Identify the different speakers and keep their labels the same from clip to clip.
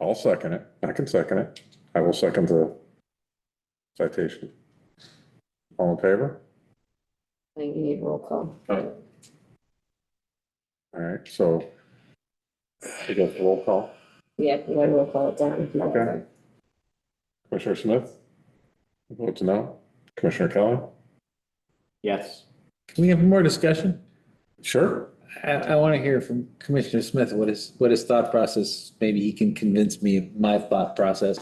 Speaker 1: I'll second it. I can second it. I will second the citation. All in favor?
Speaker 2: I think you need roll call.
Speaker 1: All right, so we got the roll call.
Speaker 2: Yeah, you gotta roll call it down.
Speaker 1: Okay. Commissioner Smith? Votes no. Commissioner Kelly?
Speaker 3: Yes.
Speaker 4: Can we have more discussion?
Speaker 1: Sure.
Speaker 4: I, I want to hear from Commissioner Smith, what his, what his thought process, maybe he can convince me of my thought process.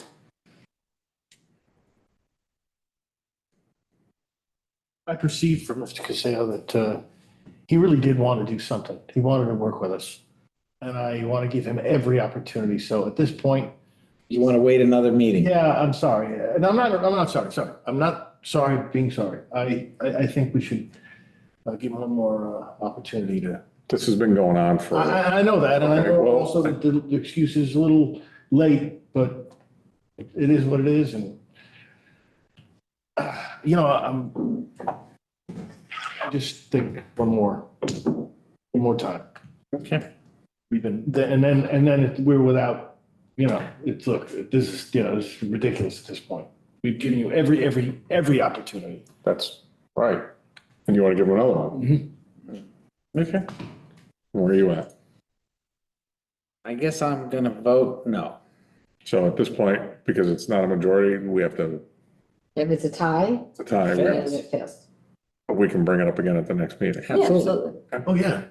Speaker 5: I perceived from Mr. Casale that uh, he really did want to do something. He wanted to work with us. And I want to give him every opportunity. So at this point,
Speaker 4: You want to wait another meeting?
Speaker 5: yeah, I'm sorry. And I'm not, I'm not sorry, sorry. I'm not sorry being sorry. I, I I think we should uh, give him one more uh, opportunity to.
Speaker 1: This has been going on
Speaker 5: I,
Speaker 2: Uh-huh.
Speaker 1: for,
Speaker 5: I- I know that, and I
Speaker 1: Okay,
Speaker 5: know
Speaker 1: well,
Speaker 5: also that the the excuse is a little late, but it is what it is, and uh, you know, I'm, I just think one more, one more time.
Speaker 4: Okay.
Speaker 5: We've been, the- and then, and then if we're without, you know, it's, look, this is, you know, this is ridiculous at this point. We've given you every, every, every opportunity.
Speaker 1: that's right. And you want to give him another one?
Speaker 4: Okay.
Speaker 1: Where are you at?
Speaker 4: I guess I'm gonna vote no.
Speaker 1: So at this point, because it's not a majority, we have to
Speaker 2: If it's a tie,
Speaker 1: to tie, we
Speaker 2: then
Speaker 1: have-
Speaker 2: it fails.
Speaker 1: we can bring it up again at the next meeting.
Speaker 2: Yeah,
Speaker 4: Absolutely.
Speaker 5: Oh, yeah.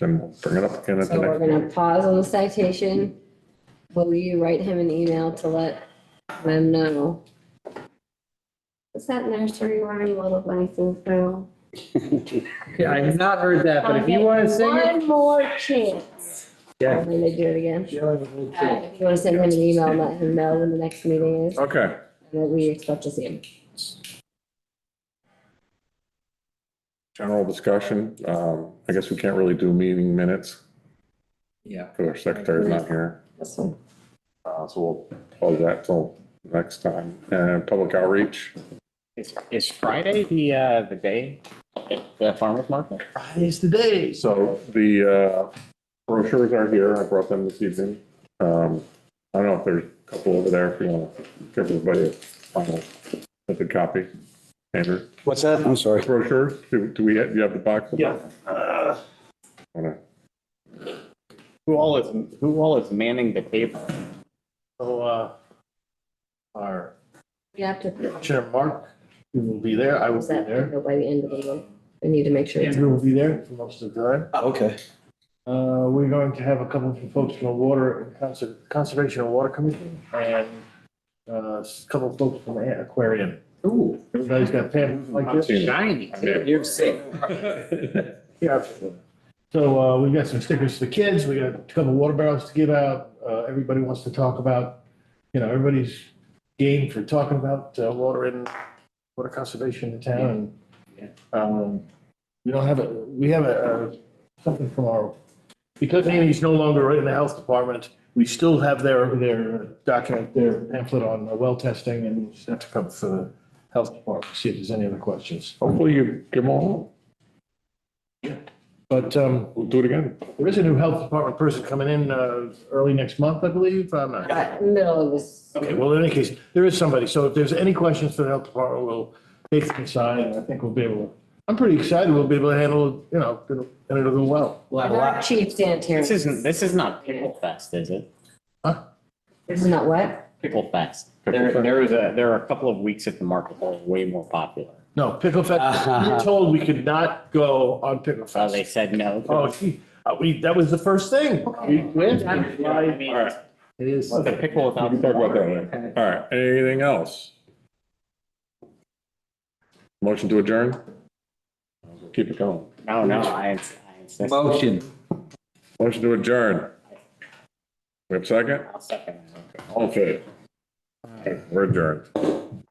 Speaker 1: Then we'll bring it up again at the
Speaker 2: So we're
Speaker 1: next meeting.
Speaker 2: gonna pause on the citation. Will you write him an email to let them know? Is that nursery rhyme little license now?
Speaker 4: Yeah, I've not heard that, but if you want to sing it.
Speaker 2: One more chance.
Speaker 4: Yeah.
Speaker 2: I'm gonna do it again. Uh, If you wanna send him an email, let him know when the next meeting is,
Speaker 1: Okay,
Speaker 2: and that we expect to see him.
Speaker 1: general discussion. Um, I guess we can't really do meeting minutes
Speaker 4: Yeah,
Speaker 1: because our secretary's not here.
Speaker 2: That's fine.
Speaker 1: Uh, so we'll close that till next time. And public outreach,
Speaker 3: Is, is Friday the, uh, the day, the farmer's market?
Speaker 5: It's the day.
Speaker 1: so the, uh, brochures are here. I brought them this evening. Um, I don't know if there's a couple over there if you want to give everybody a final, a good copy. Andrew,
Speaker 6: What's that? I'm sorry.
Speaker 1: brochures, do, do we, do you have the box?
Speaker 5: Yeah. Uh,
Speaker 1: Wanna-
Speaker 3: Who all is, who all is manning the table?
Speaker 5: So, uh, our
Speaker 2: We have to,
Speaker 5: Chair Mark, who will be there, I will
Speaker 2: is
Speaker 5: be
Speaker 2: that
Speaker 5: there,
Speaker 2: by the end of the month? We need to make sure. it's-
Speaker 5: Andrew will be there for most of the time.
Speaker 6: Okay.
Speaker 5: Uh, we're going to have a couple of folks from the Water, and Conser- Conservation and Water Commission, and uh, a couple of folks from the Aquarium.
Speaker 3: Ooh.
Speaker 5: Everybody's got pamphlets like
Speaker 1: I've
Speaker 5: this.
Speaker 1: seen it.
Speaker 3: Shiny.
Speaker 1: too.
Speaker 3: You're sick.
Speaker 5: Yeah. So uh, we've got some stickers for the kids, we got a couple of water barrels to give out, uh, everybody wants to talk about, you know, everybody's game for talking about uh, water and water conservation in town.
Speaker 3: Yeah.
Speaker 5: Um, We don't have a, we have a, uh, something from our, because Amy's no longer in the health department, we still have their, their document, their pamphlet on uh, well testing and that's come for the health department, see if there's any other questions.
Speaker 1: Hopefully you give them all,
Speaker 5: But um,
Speaker 1: we'll do it again.
Speaker 5: There is a new health department person coming in uh, early next month, I believe. I'm not.
Speaker 2: Uh, Middle of this.
Speaker 5: Okay, well, in any case, there is somebody. So if there's any questions for the health department, we'll take them aside and I think we'll be able, to- I'm pretty excited we'll be able to handle, it. you know, it'll- and it'll go well.
Speaker 3: We'll have a
Speaker 2: Our
Speaker 3: lot.
Speaker 2: chief sanitarian.
Speaker 3: This isn't, this is not Pickle Fest, is it?
Speaker 2: This is not what?
Speaker 3: Pickle Fest. There,
Speaker 1: Pickle Fest.
Speaker 3: there is a, there are a couple of weeks at the market that are way more popular.
Speaker 5: No, Pickle Fest, we were told we could not go on Pickle
Speaker 3: So Uh, they
Speaker 5: Fest.
Speaker 3: said no.
Speaker 5: Oh, gee, uh, we, that was the first thing. We went.
Speaker 3: I mean,
Speaker 4: it is.
Speaker 3: The pickle
Speaker 1: We
Speaker 3: without.
Speaker 1: can talk about that later. All right, anything else? Motion to adjourn? Keep it going.
Speaker 3: No, no, I ins- I insist.
Speaker 4: Motion.
Speaker 1: Motion to adjourn. We have a second?
Speaker 3: I'll second that.
Speaker 1: All in favor? All right, We're adjourned.